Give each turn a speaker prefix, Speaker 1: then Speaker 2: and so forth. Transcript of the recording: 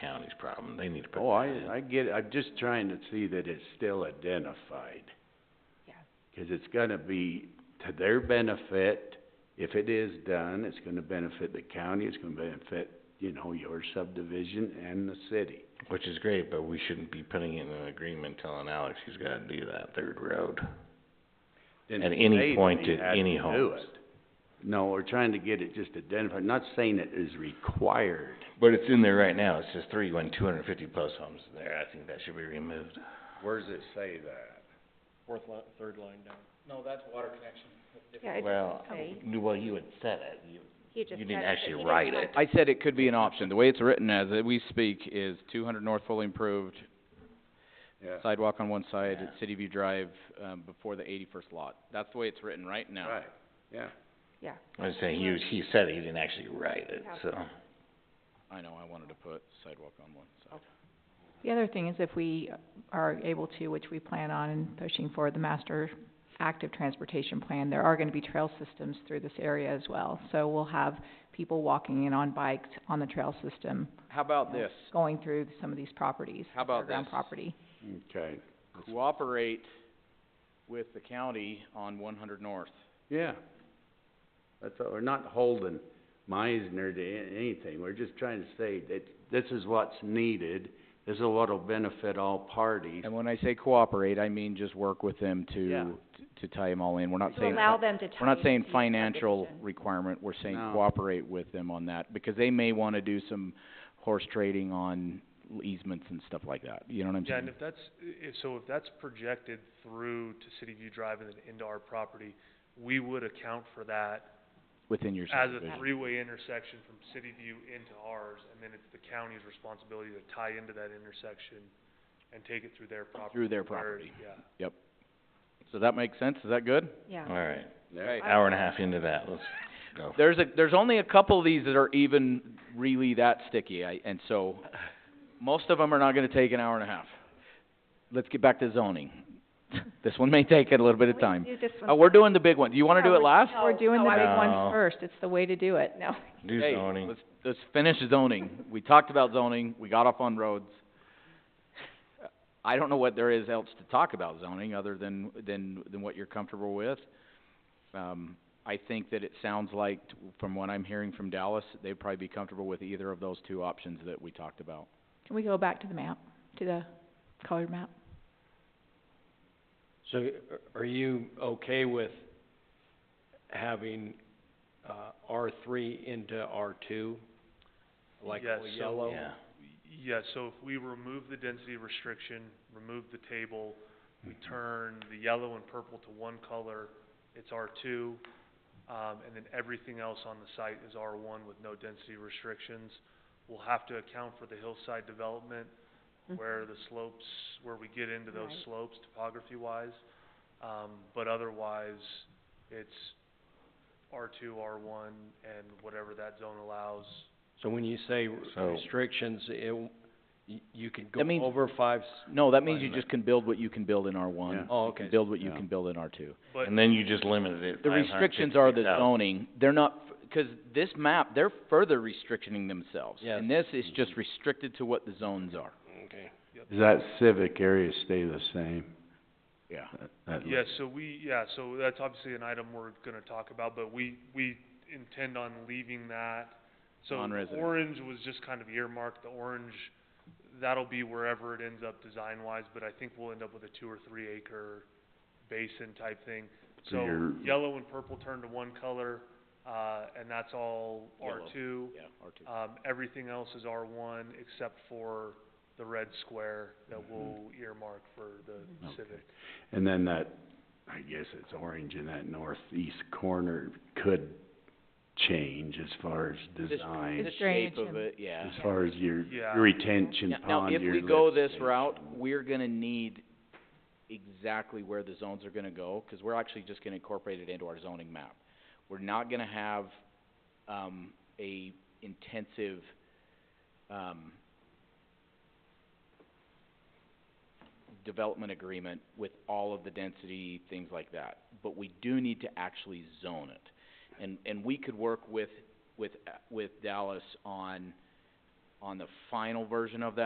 Speaker 1: county's problem, they need to put
Speaker 2: Oh,
Speaker 1: that in.
Speaker 2: I, I get it, I'm just trying to see that it's still identified.
Speaker 3: Yeah.
Speaker 2: Cause it's gonna be to their benefit, if it is done, it's gonna benefit the county, it's gonna benefit, you know, your subdivision and the city.
Speaker 1: Which is great, but we shouldn't be putting in an agreement telling Alex he's gotta do that third road.
Speaker 2: Didn't
Speaker 1: At any
Speaker 2: say that
Speaker 1: point
Speaker 2: they
Speaker 1: at
Speaker 2: had
Speaker 1: any
Speaker 2: to do
Speaker 1: homes.
Speaker 2: it. No, we're trying to get it just identified, not saying it is required.
Speaker 1: But it's in there right now, it says three, when two hundred and fifty plus homes is there, I think that should be removed.
Speaker 2: Where does it say that?
Speaker 4: Fourth line, third line down.
Speaker 3: Yeah, it
Speaker 1: Well,
Speaker 3: doesn't say.
Speaker 1: well, you had said it, you,
Speaker 3: He just
Speaker 1: you
Speaker 3: said it,
Speaker 1: didn't
Speaker 3: but
Speaker 1: actually
Speaker 3: he
Speaker 1: write
Speaker 3: have
Speaker 1: it.
Speaker 3: to-
Speaker 5: I said it could be an option. The way it's written as it- we speak is two hundred north fully improved,
Speaker 2: Yeah.
Speaker 5: sidewalk on one side,
Speaker 1: Yeah.
Speaker 5: at City View Drive, um, before the eighty-first lot. That's the way it's written right now.
Speaker 2: Right, yeah.
Speaker 3: Yeah,
Speaker 1: I was saying, you, he said it, he didn't actually write it,
Speaker 3: Yeah.
Speaker 1: so.
Speaker 5: I know, I wanted to put sidewalk on one side.
Speaker 6: The other thing is if we are able to, which we plan on in pushing for the master active transportation plan, there are gonna be trail systems through this area as well. So we'll have people walking in on bikes on the trail system,
Speaker 5: How about this?
Speaker 6: going through some of these properties,
Speaker 5: How about
Speaker 6: underground
Speaker 5: this?
Speaker 6: property.
Speaker 2: Okay,
Speaker 5: Cooperate with the county on one hundred north.
Speaker 2: yeah. That's, all- we're not holding Meisner to a- anything, we're just trying to say that this is what's needed, this is what'll benefit all parties.
Speaker 5: And when I say cooperate, I mean just work with them
Speaker 2: Yeah.
Speaker 5: to, to tie them all in. We're not
Speaker 3: to
Speaker 5: saying
Speaker 3: allow them to tie
Speaker 5: We're not saying
Speaker 3: into the
Speaker 5: financial
Speaker 3: subdivision.
Speaker 5: requirement, we're saying
Speaker 2: No.
Speaker 5: cooperate with them on that, because they may wanna do some horse trading on easements and stuff like that, you know what I'm
Speaker 4: Yeah, and
Speaker 5: saying?
Speaker 4: if that's, i- if, so if that's projected through to City View Drive and then into our property, we would account for that
Speaker 5: Within your
Speaker 4: as a
Speaker 5: subdivision.
Speaker 4: three-way intersection from City View into ours, and then it's the county's responsibility to tie into that intersection and take it through their property.
Speaker 5: Through their
Speaker 4: priority, Yeah.
Speaker 5: So that makes sense, is that good?
Speaker 3: yeah.
Speaker 1: Alright,
Speaker 2: There.
Speaker 1: hour and a half into that, let's go.
Speaker 5: There's a, there's only a couple of these that are even really that sticky, I, and so, most of them are not gonna take an hour and a half. Let's get back to zoning. This one may take a little bit of time.
Speaker 3: We do this one.
Speaker 5: Uh, we're doing the big one, do you wanna
Speaker 3: Yeah,
Speaker 5: do it
Speaker 3: we're-
Speaker 5: last?
Speaker 3: No,
Speaker 6: We're doing
Speaker 3: no,
Speaker 6: the
Speaker 3: I
Speaker 6: big
Speaker 3: was-
Speaker 1: No.
Speaker 6: ones first, it's the way to do it, no.
Speaker 1: Do
Speaker 5: Hey,
Speaker 1: zoning,
Speaker 5: let's, let's finish zoning. We talked about zoning, we got off on roads. I don't know what there is else to talk about zoning, other than, than, than what you're comfortable with. Um, I think that it sounds like, t- from what I'm hearing from Dallas, they'd probably be comfortable with either of those two options that we talked about.
Speaker 6: Can we go back to the map, to the colored map?
Speaker 7: So y- are you okay with having, uh, R three into R two? Like
Speaker 4: Yes,
Speaker 7: all
Speaker 4: so-
Speaker 7: yellow?
Speaker 1: yeah,
Speaker 4: Yeah, so if we remove the density restriction, remove the table, we turn the yellow and purple to one color, it's R two. Um, and then everything else on the site is R one with no density restrictions. We'll have to account for the hillside development, where the slopes, where we get into those
Speaker 3: Right.
Speaker 4: slopes topography wise. Um, but otherwise, it's R two, R one, and whatever that zone allows.
Speaker 7: So when you say
Speaker 1: So-
Speaker 7: restrictions, it, w- y- you could go
Speaker 5: That means-
Speaker 7: over five s-
Speaker 5: No, that means you
Speaker 7: Alignment.
Speaker 5: just can build what you can build in R
Speaker 2: Yeah.
Speaker 5: one.
Speaker 7: Oh, okay.
Speaker 5: Build what you
Speaker 2: Yeah.
Speaker 5: can build in R two.
Speaker 4: But
Speaker 1: and then you just limited it
Speaker 5: The restrictions are the zoning, they're not, f- cause this map, they're further restricting themselves. And this is just restricted to what the zones are.
Speaker 7: Okay.
Speaker 2: Does that civic area stay the same?
Speaker 5: Yeah.
Speaker 2: That- that-
Speaker 4: Yeah, so we, yeah, so that's obviously an item we're gonna talk about, but we, we intend on leaving that. So
Speaker 5: Non-resident.
Speaker 4: orange was just kind of earmarked, the orange, that'll be wherever it ends up design wise, but I think we'll end up with a two or three acre basin type thing.
Speaker 2: So
Speaker 4: So
Speaker 2: you're-
Speaker 4: yellow and purple turn to one color, uh, and that's all R
Speaker 5: Yellow.
Speaker 4: two.
Speaker 5: Yeah, R two.
Speaker 4: Um, everything else is R one except for the red square that we'll earmark for the
Speaker 2: Mm-hmm. Okay.
Speaker 4: civic.
Speaker 2: And then that, I guess it's orange in that northeast corner could change as far as
Speaker 6: The
Speaker 2: design,
Speaker 6: this- drainage
Speaker 5: shape of
Speaker 6: and-
Speaker 5: it, yeah.
Speaker 2: as far as your
Speaker 4: Yeah.
Speaker 2: retention
Speaker 5: Now- Now,
Speaker 2: pond,
Speaker 5: if
Speaker 2: your
Speaker 5: we
Speaker 2: lift
Speaker 5: go this
Speaker 2: station.
Speaker 5: route, we're gonna need exactly where the zones are gonna go, cause we're actually just gonna incorporate it into our zoning map. We're not gonna have, um, a intensive, um, development agreement with all of the density, things like that. But we do need to actually zone it. And, and we could work with, with, uh, with Dallas on, on the final version of that.